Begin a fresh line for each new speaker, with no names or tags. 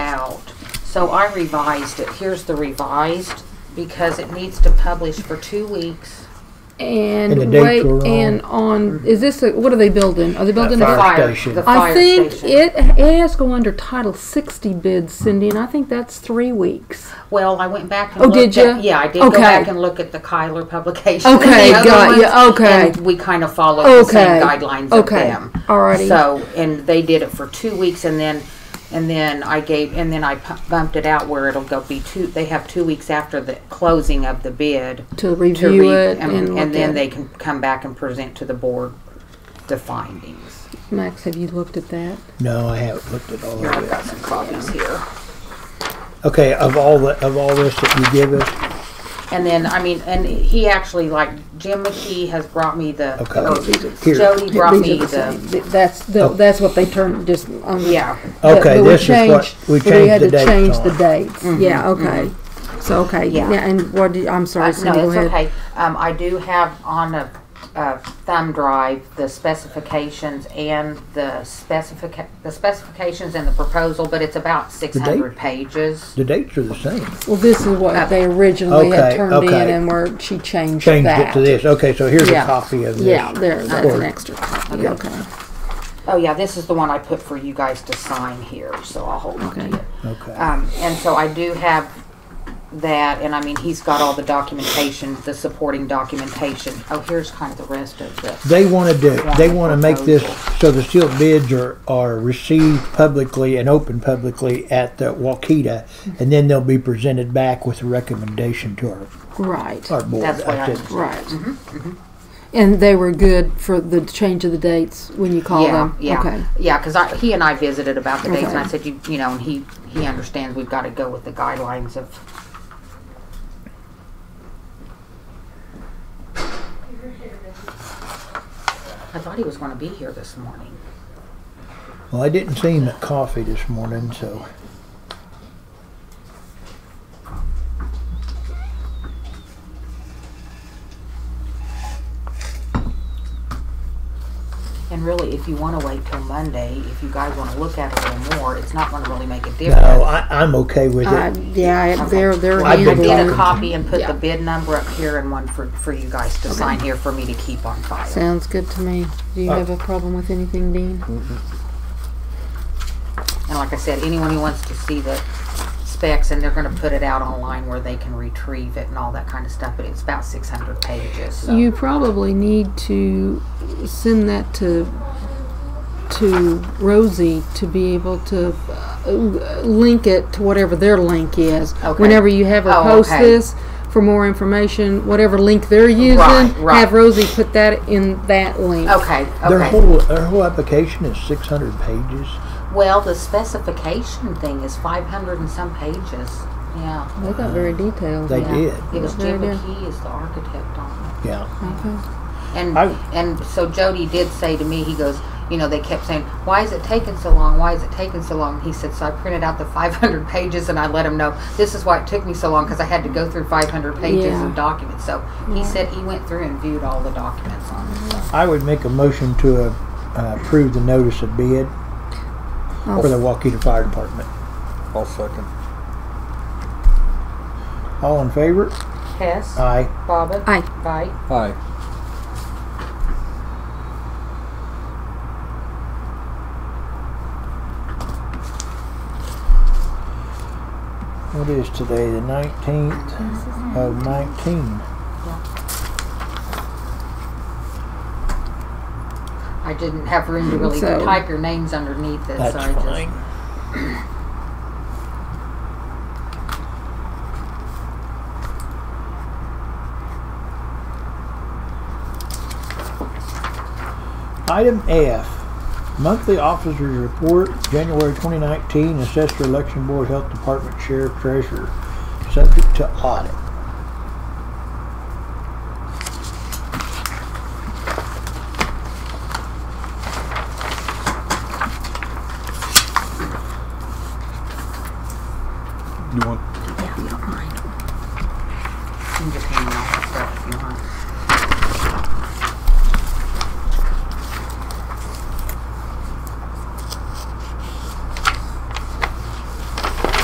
So I revised it. Here's the revised because it needs to publish for two weeks.
And,
And the
wait,
dates were on.
and on is this a, what are they building? Are they building a
fire
fire?
station.
The fire
I think
station.
it it has to go under Title 60 bids, Cindy, and I think that's three weeks.
Well, I went back and
Oh,
looked
did
at-
ya?
Yeah, I did go
Okay.
back and look at the Kyler publication. and
Okay,
the other
got ya,
ones,
okay.
And we kind of followed the
Okay.
same guidelines of
Okay.
them.
Alrighty.
So, and they did it for two weeks, and then, and then I gave, and then I pu- bumped it out where it'll go be two. They have two weeks after the closing of the bid
To
to
review
read,
it
and,
and,
and
look
then
at
they
it.
can come back and present to the board the findings.
Max, have you looked at that?
No, I haven't looked at all
Here, I've
of it.
got some copies here.
Okay, of all the, of all this that you give us,
And then, I mean, and he actually, like, Jim McKee has brought me the,
Okay.
or
Here.
Jody brought
These
me
are the
the,
same. Th- That's the, that's what they turned just on the
yeah.
But-
Oh. Okay,
but we
this is what-
changed-
we
but
changed
had
the
to
dates
change
on
the
it.
dates. Yeah, okay. So okay,
Mm-hmm. Yeah.
yeah. and what? Did, I'm sorry,
Uh,
Cindy.
No,
go
it's
ahead.
okay. Um, I do have on a, a thumb drive, the specifications and the specific, the specifications and the proposal, but it's about six hundred pages.
the dates are the same.
Well, this is
Uh,
what they originally
Okay,
had turned in,
okay.
and where she changed,
Changed
that.
it to this. Okay, so here's a
Yeah.
copy of this.
Yeah, there. That's
Or-
an extra copy. Okay.
Oh, yeah, this is the one I put for you guys to sign here, so I'll hold on to
Okay.
it.
Okay,
Um, and so I do have that, and I mean, he's got all the documentation, the supporting documentation. Oh, here's kind of the rest of this.
they wanna do, they wanna make this, so the sealed bids are, are received publicly and open publicly at the Waukita, and then they'll be presented back with a recommendation to our,
Right.
our board.
That's what I-
did-
Right.
Mm-hmm,
And they were good for the change of the dates when you call
Yeah,
them.
yeah,
Okay.
yeah. Because I, he and I visited about the dates, and I
Okay.
said, you, you know, and he, he understands we've got to go with the guidelines of. I thought he was going to be here this morning.
Well, I didn't see him at coffee this morning, so.
And really, if you want to wait till Monday, if you guys want to look at it a little more, it's not going to really make a difference.
No, I, I'm okay with
Uh,
it.
yeah, they're they're
I've
I
been
did a
Right.
handling.
copy and put
Yeah.
the bid number up here and one for, for you guys to sign here for me to keep on file.
Sounds good to me. Do you
Uh,
have a problem with anything, Dean?
And like I said, anyone who wants to see the specs, and they're gonna put it out online where they can retrieve it and all that kind of stuff, but it's about six hundred pages, so.
You probably need to send that to to Rosie to be able to uh, link it to whatever their link is.
Okay.
Whenever you have her
Oh,
post
okay.
this for more information, whatever link they're using,
Right, right. Oh.
have Rosie put that in that link.
Okay,
Their
okay.
whole, their whole application is six hundred pages.
Well, the specification thing is five hundred and some pages, yeah.
They got very detailed.
They
yeah.
did,
It was
Yeah,
Jim
they did.
McKee is the architect on it.
yeah.
Okay.
And
I-
and so Jody did say to me, he goes, you know, they kept saying, why is it taking so long? Why is it taking so long? He said, so I printed out the 500 pages and I let him know this is why it took me so long because I had to go through 500 pages
Yeah.
of documents. So he said he went through and viewed all the documents on it. So.
I would make a motion to uh, uh, approve the notice of bid for the Waukeeta Fire Department.
I'll second.
All in favor?
Hess,
Aye.
Bobbin,
Aye.
Vite.
Aye.
What is today, the nineteenth of nineteen?
I didn't have room to really
So-
type your names underneath it,
That's
so I
fine. Item F, monthly officers report, January 2019, assessor, election board, health department, sheriff, treasurer, subject to audit.
You want?
just you can just hang on to stuff if you want.